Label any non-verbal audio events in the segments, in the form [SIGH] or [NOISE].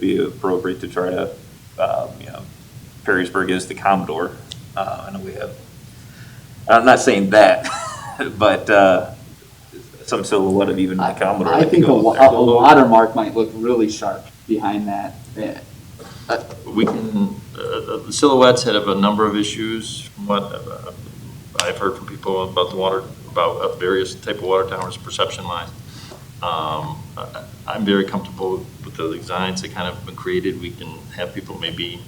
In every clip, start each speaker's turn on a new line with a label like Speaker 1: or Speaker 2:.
Speaker 1: be appropriate to try to, um, you know, Perrysburg is the Commodore. Uh, I know we have, I'm not saying that, [LAUGHS] but, uh, some silhouette of even the Commodore.
Speaker 2: I
Speaker 1: that
Speaker 2: think a,
Speaker 1: goes
Speaker 2: wa-
Speaker 1: there.
Speaker 2: a watermark might look really sharp behind that. Yeah.
Speaker 3: We can, uh, the silhouettes had a number of issues from what uh, I've heard from people about the water, about uh, various type of water towers, perception lines. Um, I- I'm very comfortable with the designs that kind of been created. We can have people maybe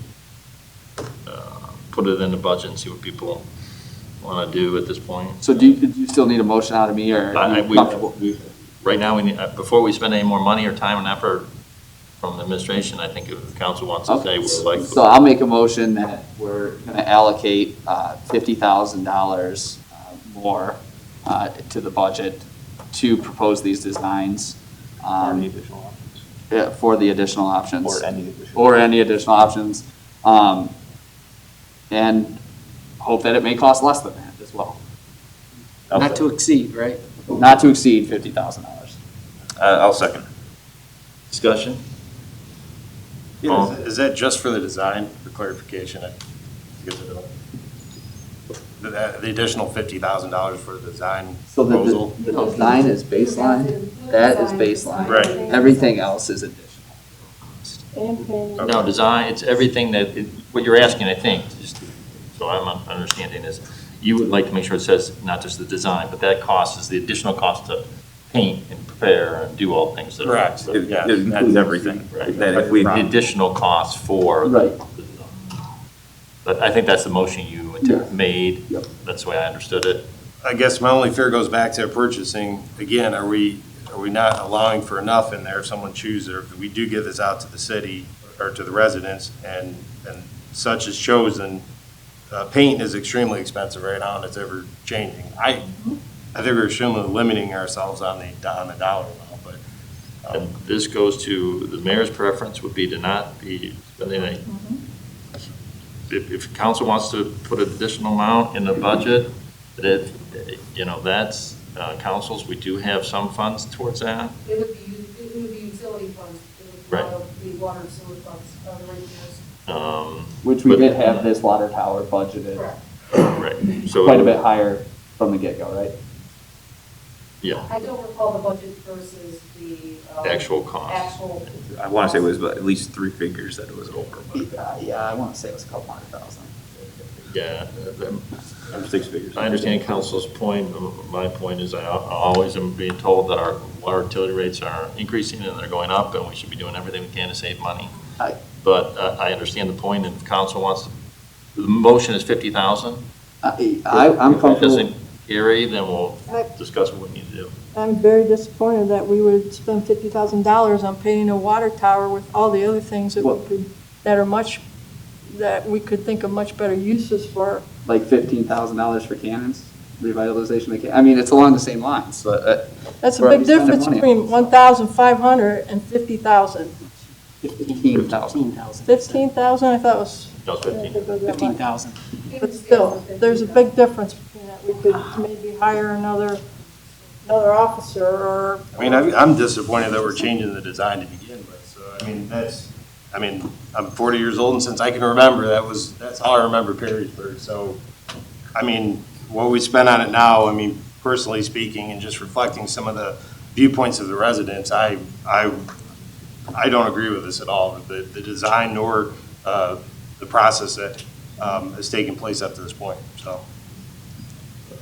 Speaker 3: uh, put it in the budget and see what people want to do at this point.
Speaker 2: So do you, do you still need a motion out of me or
Speaker 3: I-
Speaker 2: are
Speaker 3: I-
Speaker 2: you
Speaker 3: we-
Speaker 2: comfortable?
Speaker 3: we- Right now, we need, uh, before we spend any more money or time and effort from the administration, I think if the council wants to
Speaker 2: Okay.
Speaker 3: say we're like.
Speaker 2: So I'll make a motion that we're going to allocate uh, $50,000 uh, more uh, to the budget to propose these designs
Speaker 1: Or any
Speaker 2: um,
Speaker 1: additional options.
Speaker 2: yeah, for the additional options.
Speaker 1: Or any additional.
Speaker 2: or any additional options. Um, and hope that it may cost less than that as well.
Speaker 1: I'll
Speaker 4: Not
Speaker 1: sec-
Speaker 4: to exceed, right?
Speaker 2: Not to exceed fifty thousand dollars.
Speaker 1: uh, I'll second.
Speaker 3: Discussion?
Speaker 5: Yeah,
Speaker 3: Oh.
Speaker 5: is- is that just for the design, for clarification? I guess I don't- The the additional fifty thousand dollars for the design
Speaker 2: So the,
Speaker 5: proposal?
Speaker 2: the the design is baseline, that is baseline.
Speaker 5: Right.
Speaker 2: Everything else is additional.
Speaker 6: And then
Speaker 3: No, design, it's everything that, it- what you're asking, I think, just, so I'm un- understanding is, you would like to make sure it says not just the design, but that cost is the additional cost to paint and prepare and do all things that are.
Speaker 5: Correct.
Speaker 3: so
Speaker 1: It
Speaker 5: Yeah.
Speaker 1: it includes everything.
Speaker 3: Right.
Speaker 1: That if we,
Speaker 3: The additional cost for.
Speaker 2: Right.
Speaker 3: But I think that's the motion you
Speaker 2: Yeah.
Speaker 3: made.
Speaker 2: Yep.
Speaker 3: That's the way I understood it.
Speaker 5: I guess my only fear goes back to purchasing. Again, are we, are we not allowing for enough in there if someone chooses, or if we do give this out to the city or to the residents and, and such is chosen, uh, paint is extremely expensive right now and it's ever changing. I, I think we're extremely limiting ourselves on the, on the dollar amount, but
Speaker 3: And Um, this goes to, the mayor's preference would be to not be spending any. If, if council wants to put an additional amount in the budget, that, you know, that's, uh, councils, we do have some funds towards that.
Speaker 7: It would be, it would be utility funds. It
Speaker 3: Right.
Speaker 7: would not be water and sewer funds, uh, other rate bills.
Speaker 3: Um,
Speaker 2: Which we
Speaker 3: But-
Speaker 2: did have this water tower budgeted
Speaker 3: right, so.
Speaker 2: quite a bit higher from the get-go, right?
Speaker 3: Yeah,
Speaker 7: I don't recall the budget versus the. um,
Speaker 3: actual cost.
Speaker 7: Actual.
Speaker 1: I want to say it was at least three figures that it was over, but
Speaker 2: Yeah, yeah, I wanna say it was a couple hundred thousand.
Speaker 3: Yeah, um,
Speaker 1: um, six figures.
Speaker 3: I understand council's point, my point is I al- always am being told that our water utility rates are increasing and they're going up, and we should be doing everything we can to save money.
Speaker 2: Aye.
Speaker 3: But uh, I understand the point, and if council wants, to- the motion is 50,000.
Speaker 2: I, I- I'm
Speaker 3: If it
Speaker 2: comfortable,
Speaker 3: doesn't carry, then we'll
Speaker 6: I-
Speaker 3: discuss what we need to do.
Speaker 6: I'm very disappointed that we would spend fifty thousand dollars on painting a water tower with all the other things that
Speaker 2: Well-
Speaker 6: we could, that are much, that we could think of much better uses for.
Speaker 2: like fifteen thousand dollars for cannons, revitalization of, can- I mean, it's along the same lines, so, uh,
Speaker 6: That's a
Speaker 2: Where are
Speaker 6: big
Speaker 2: we spending
Speaker 6: difference
Speaker 2: money?
Speaker 6: between one thousand five hundred and fifty thousand.
Speaker 2: fifteen thousand.
Speaker 6: Fifteen thousand, I thought was.
Speaker 3: No, it's 15.
Speaker 4: Fifteen thousand.
Speaker 6: But still, there's a big difference between that. We could maybe hire another, another officer or.
Speaker 5: I mean, I'm I'm disappointed that we're changing the design to begin with, so, I mean, that's, I mean, I'm 40 years old, and since I can remember, that was, that's all I remember Perrysburg, so, I mean, what we spend on it now, I mean, personally speaking, and just reflecting some of the viewpoints of the residents, I, I, I don't agree with this at all, the, the design nor uh, the process that um, has taken place up to this point, so.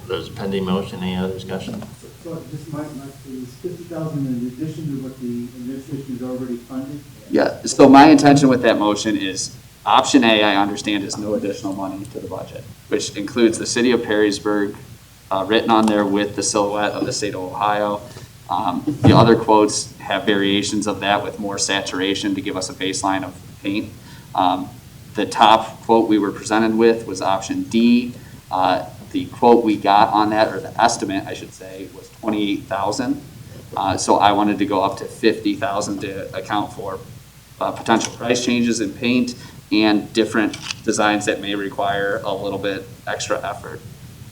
Speaker 3: There's a pending motion, any other discussion?
Speaker 8: So just my, my, is fifty thousand in addition to what the administration is already funded?
Speaker 2: Yeah, so my intention with that motion is, option A, I understand, is no additional money to the budget, which includes the city of Perrysburg, uh, written on there with the silhouette of the state of Ohio. Um, The other quotes have variations of that with more saturation to give us a baseline of paint. Um, The top quote we were presented with was option D. Uh, The quote we got on that, or the estimate, I should say, was twenty-eight thousand. Uh, So I wanted to go up to 50,000 to account for uh, potential price changes in paint and different designs that may require a little bit extra effort.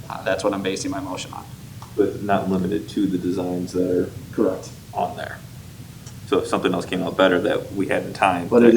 Speaker 2: Uh, That's what I'm basing my motion on.
Speaker 1: But not limited to the designs that are
Speaker 2: Correct.
Speaker 1: on there. So if something else came out better that we had in time.
Speaker 2: But it
Speaker 1: that-